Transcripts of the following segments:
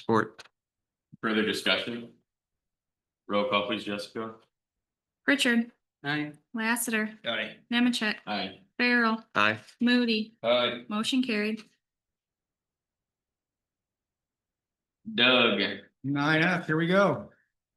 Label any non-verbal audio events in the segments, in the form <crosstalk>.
Support. Further discussion? Roll call please, Jessica. Richard, Aye. Lassiter, Aye. Nemecheck, Aye. Farrell, Aye. Moody, Aye. motion carried. Doug, Nine F, here we go.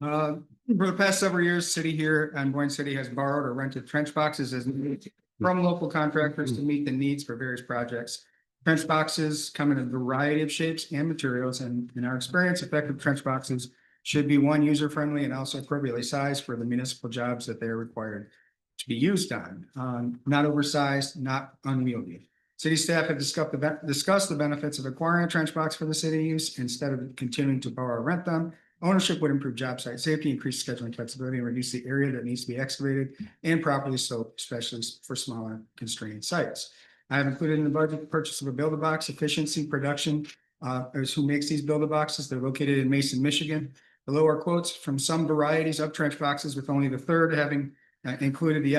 Uh, for the past several years, city here and Boyne City has borrowed or rented trench boxes as needed from local contractors to meet the needs for various projects. Trench boxes come in a variety of shapes and materials, and in our experience, effective trench boxes should be one user friendly and also appropriately sized for the municipal jobs that they are required to be used on, um, not oversized, not unwieldy. City staff have discussed the, ben- discussed the benefits of acquiring a trench box for the city use instead of continuing to borrow or rent them. Ownership would improve job site safety, increase scheduling flexibility, and reduce the area that needs to be excavated and properly so, especially for smaller constrained sites. I have included in the budget the purchase of a Build-A-Box Efficiency Production, uh, is who makes these Build-A-Boxes. They're located in Mason, Michigan. Below are quotes from some varieties of trench boxes with only the third having uh, included the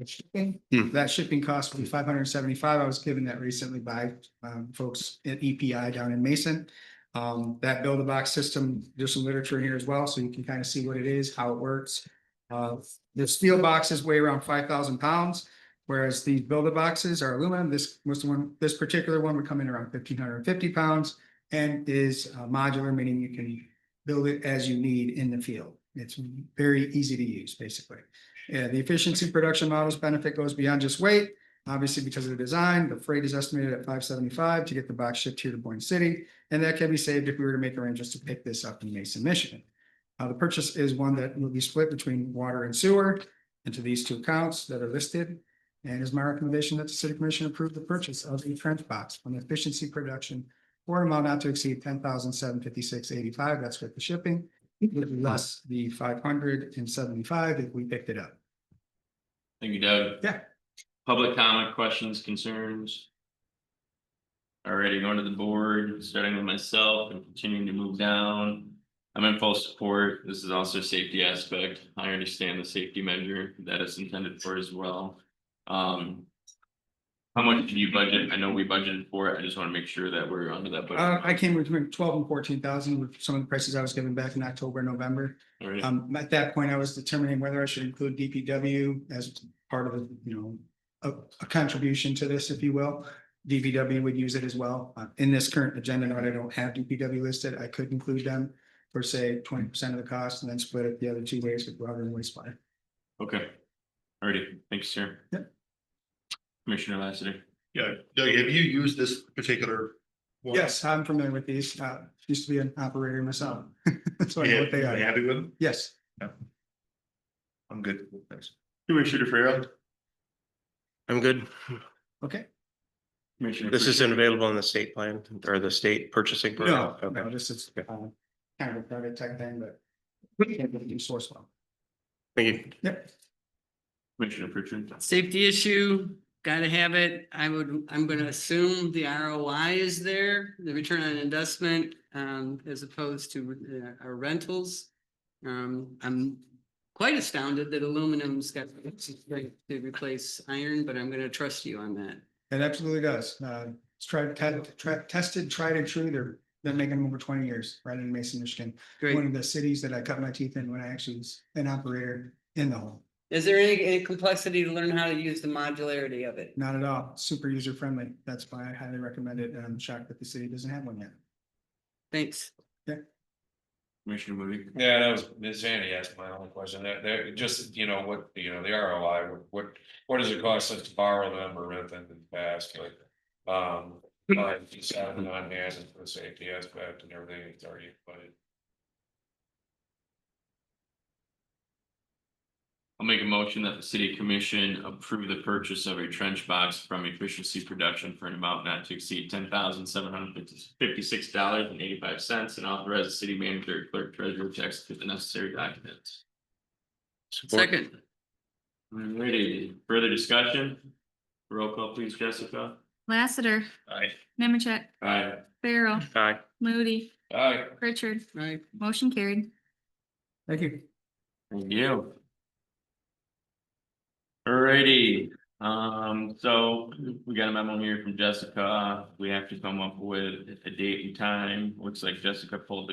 estimate. That shipping cost will be five hundred and seventy-five. I was given that recently by um, folks at EPI down in Mason. Um, that build a box system, there's some literature in here as well, so you can kind of see what it is, how it works. Uh, the steel boxes weigh around five thousand pounds, whereas these build a boxes are aluminum. This was the one, this particular one would come in around fifteen hundred and fifty pounds and is uh, modular, meaning you can build it as you need in the field. It's very easy to use, basically. Yeah, the efficiency production models benefit goes beyond just weight. Obviously, because of the design, the freight is estimated at five seventy-five to get the box shipped here to Boyne City. And that can be saved if we were to make arrangements to pick this up in Mason, Michigan. Uh, the purchase is one that will be split between water and sewer into these two accounts that are listed. And is my recommendation that the city commission approve the purchase of a trench box from efficiency production for an amount not to exceed ten thousand seven fifty-six eighty-five. That's with the shipping. Would be less the five hundred and seventy-five if we picked it up. thank you, Doug. Yeah. Public comment, questions, concerns? Already going to the board, starting with myself and continuing to move down. I'm in full support. This is also a safety aspect. I understand the safety measure that it's intended for as well. Um. How much do you budget? I know we budgeted for it. I just want to make sure that we're under that budget. Uh, I came between twelve and fourteen thousand with some of the prices I was given back in October, November. All right. Um, at that point, I was determining whether I should include DPW as part of, the, you know, a, a contribution to this, if you will. DPW would use it as well. Uh, in this current agenda, note, I don't have DPW listed. I could include them for say twenty percent of the cost and then split it the other two ways with water and wastewater. Okay. Alrighty, thanks, sir. Yep. Commissioner Lassiter. Yeah, Doug, have you used this particular? one? Yes, I'm familiar with these. Uh, used to be an operator myself. <laughs> So I know Yeah, what they you are. happy with them? Yes. I'm good, thanks. Commissioner Farrell. I'm good. Okay. Commissioner. This Frisch. isn't available on the state plan or the state purchasing. No, program. no, Okay. this is uh, Okay. kind of a private tech thing, but we can't really do source well. Thank you. Yep. Commissioner Pritchard. Safety issue, gotta have it. I would, I'm gonna assume the ROI is there, the return on investment, um, as opposed to uh, our rentals. Um, I'm quite astounded that aluminum's got to replace iron, but I'm gonna trust you on that. It absolutely does. Uh, It's tried, te- tra- tested, tried and true. They're, they're making them over twenty years, right in Mason, Michigan. One Great. of the cities that I cut my teeth in when I actually was an operator in the hole. Is there any, any complexity to learn how to use the modularity of it? Not at all. Super user friendly. That's why I highly recommend it. And I'm shocked that the city doesn't have one yet. Thanks. Commissioner Moody. Yeah, that was, Ms. Zanny asked my only question, that, that, just, you know, what, you know, the ROI, what, what does it cost us to borrow them or rent them in the past, but. Um, but you said it on hand and for the safety aspect and everything, it's already, but I'll make a motion that the city commission approve the purchase of a trench box from Efficiency Production for an amount not to exceed ten thousand seven hundred fifty-six dollars and eighty-five cents and authorize the city manager, clerk, treasurer to execute the necessary documents. Second, Alrighty, further discussion? Roll call please, Jessica. Lassiter, Aye. Nemecheck, Aye. Farrell, Aye. Moody, Aye. Richard, right? motion carried. Thank you. Thank you. Alrighty, Um, so we got a memo here from Jessica. We have to come up with a date and time. Looks like Jessica pulled the